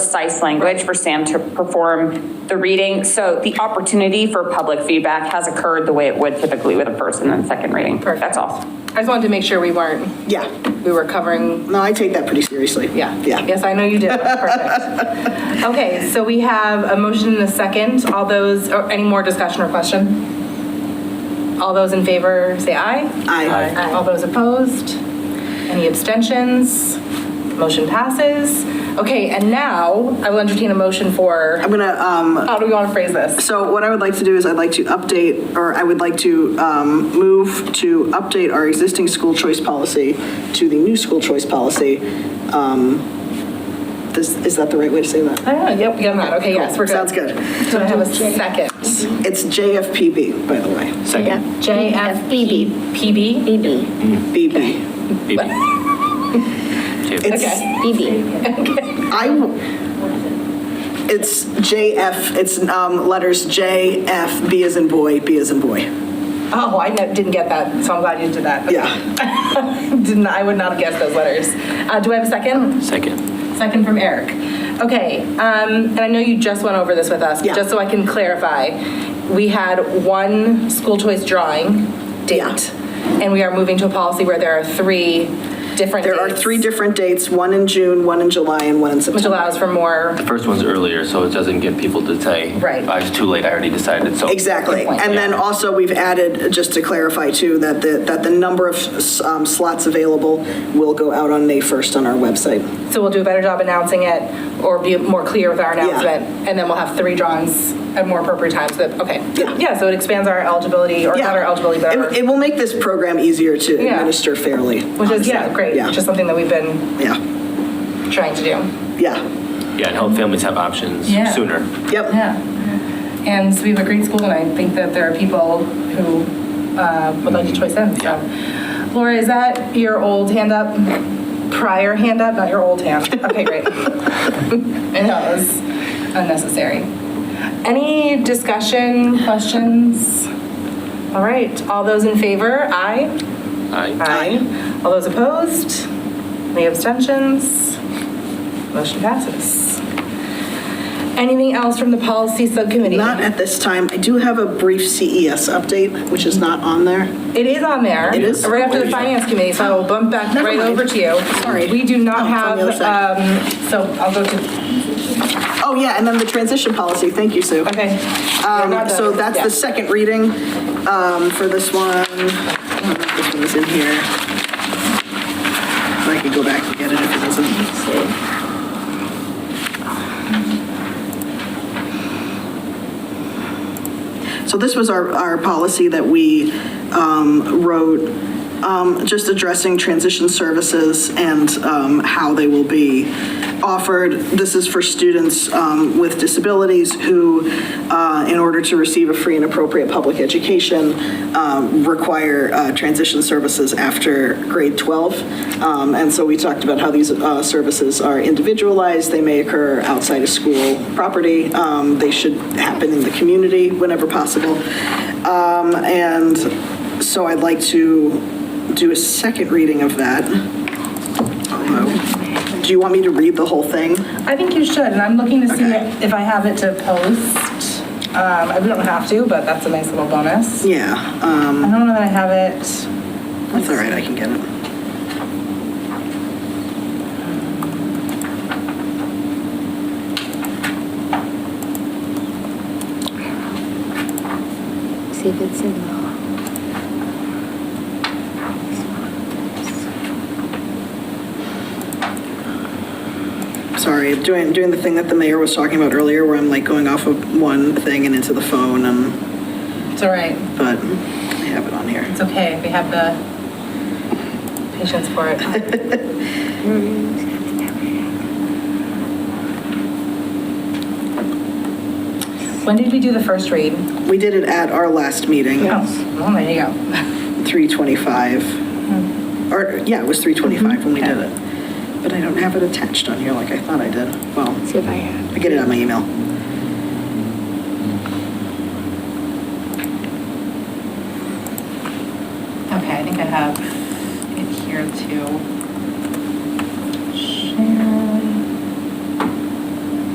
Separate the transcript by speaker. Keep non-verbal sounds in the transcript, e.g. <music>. Speaker 1: precise language for Sam to perform the reading. So the opportunity for public feedback has occurred the way it would typically with a first and then second reading. That's all.
Speaker 2: I just wanted to make sure we weren't,
Speaker 3: Yeah,
Speaker 2: we were covering,
Speaker 3: no, I take that pretty seriously.
Speaker 2: yeah.
Speaker 3: Yeah.
Speaker 2: Yes, I know you <laughs> did. Perfect. Okay, so we have a motion and a second. All those, or any more discussion or question? All those in favor, say aye.
Speaker 3: Aye.
Speaker 2: All those opposed? Any abstentions? Motion passes. Okay, and now I will entertain a motion for,
Speaker 3: I'm gonna, um,
Speaker 2: how do we want to phrase this?
Speaker 3: so what I would like to do is I'd like to update, or I would like to, um, move to update our existing school choice policy to the new school choice policy. Um, This, is that the right way to say that?
Speaker 2: I don't know, yep, we got that. Okay, yes, we're good.
Speaker 3: Sounds good.
Speaker 2: Do I have a second?
Speaker 3: It's JFPB, by the way,
Speaker 4: Second.
Speaker 2: JFBB. PB?
Speaker 5: BB,
Speaker 3: BB.
Speaker 4: <laughs>
Speaker 3: It's,
Speaker 2: Okay.
Speaker 5: BB.
Speaker 3: I, w- it's JF, it's, um, letters J, F, B as in boy, B as in boy.
Speaker 2: Oh, I ne- didn't get that, so I'm glad you did that. Okay. <laughs>
Speaker 3: Yeah.
Speaker 2: Didn't, I would not have guessed those letters. Uh, do I have a second?
Speaker 4: Second.
Speaker 2: Second from Eric. Okay, um, and I know you just went over this with us, but
Speaker 3: Yeah.
Speaker 2: just so I can clarify, we had one school choice drawing
Speaker 3: Yeah.
Speaker 2: date, and we are moving to a policy where there are three different
Speaker 3: There are
Speaker 2: dates,
Speaker 3: three different dates, one in June, one in July, and one in
Speaker 2: Which
Speaker 3: September.
Speaker 2: allows for more,
Speaker 4: The first one's earlier, so it doesn't get people to say,
Speaker 2: Right.
Speaker 4: I was too late, I already decided, so.
Speaker 3: Exactly. And then also, we've added, just to clarify too, that the, that the number of um, slots available will go out on May 1st on our website.
Speaker 2: so we'll do a better job announcing it, or be more clear with our announcement, and then we'll have three drawings at more appropriate times, that, okay.
Speaker 3: Yeah.
Speaker 2: Yeah, so it expands our eligibility, or not our eligibility, but our-
Speaker 3: It it will make this program easier to
Speaker 2: Yeah.
Speaker 3: administer fairly.
Speaker 2: Which is, yeah,
Speaker 3: honestly.
Speaker 2: great,
Speaker 3: Yeah.
Speaker 2: which is something that we've been
Speaker 3: Yeah,
Speaker 2: trying to do.
Speaker 3: yeah.
Speaker 4: Yeah, and help families have options
Speaker 2: Yeah.
Speaker 4: sooner.
Speaker 3: Yep,
Speaker 2: Yeah. And so we have a great school, and I think that there are people who uh, would like to choice in, so. Laura, is that your old hand up? Prior hand up, not your old hand? Okay, great. I know, it was unnecessary. Any discussion, questions? All right, all those in favor, aye?
Speaker 4: Aye.
Speaker 2: Aye. All those opposed? Any abstentions? Motion passes. Anything else from the policy subcommittee?
Speaker 3: not at this time. I do have a brief CES update, which is not on there.
Speaker 2: It is on there. It
Speaker 3: is?
Speaker 2: Right after the finance committee, so I will bump back
Speaker 3: Never
Speaker 2: right
Speaker 3: mind.
Speaker 2: over to you.
Speaker 3: Sorry.
Speaker 2: We do
Speaker 3: Oh,
Speaker 2: not
Speaker 3: it's on
Speaker 2: have,
Speaker 3: the other side.
Speaker 2: um, so I'll go to,
Speaker 3: Oh, yeah, and then the transition policy, thank you, Sue.
Speaker 2: okay.
Speaker 3: Um, So that's the second reading um, for this one. I don't know if This one's in here. I could go back and get it if it doesn't. So this was our, our policy that we um, wrote, um, just addressing transition services and um, how they will be offered. This is for students um, with disabilities who, uh, in order to receive a free and appropriate public education, um, require uh, transition services after grade 12. Um, And so we talked about how these uh, services are individualized, they may occur outside of school property, um, they should happen in the community whenever possible. Um, And so I'd like to do a second reading of that. Although, Do you want me to read the whole thing?
Speaker 2: I think you should, and I'm looking to see
Speaker 3: Okay.
Speaker 2: if I have it to post. Um, I don't have to, but that's a nice little bonus.
Speaker 3: Yeah, um,
Speaker 2: I don't know that I have it.
Speaker 3: that's all right, I can get it.
Speaker 5: See if it's in the.
Speaker 3: Sorry, doing, doing the thing that the mayor was talking about earlier, where I'm like going off of one thing and into the phone, um,
Speaker 2: It's all right.
Speaker 3: but I have it on here.
Speaker 2: It's okay, we have the patience for it. When did we do the first read?
Speaker 3: We did it at our last meeting,
Speaker 2: Oh, well, there you go. <laughs>
Speaker 3: 325. Or, yeah, it was 325 when we did it. But I don't have it attached on here like I thought I did. Well,
Speaker 5: See if I have.
Speaker 3: I get it on my email.
Speaker 2: Okay, I think I have it here too.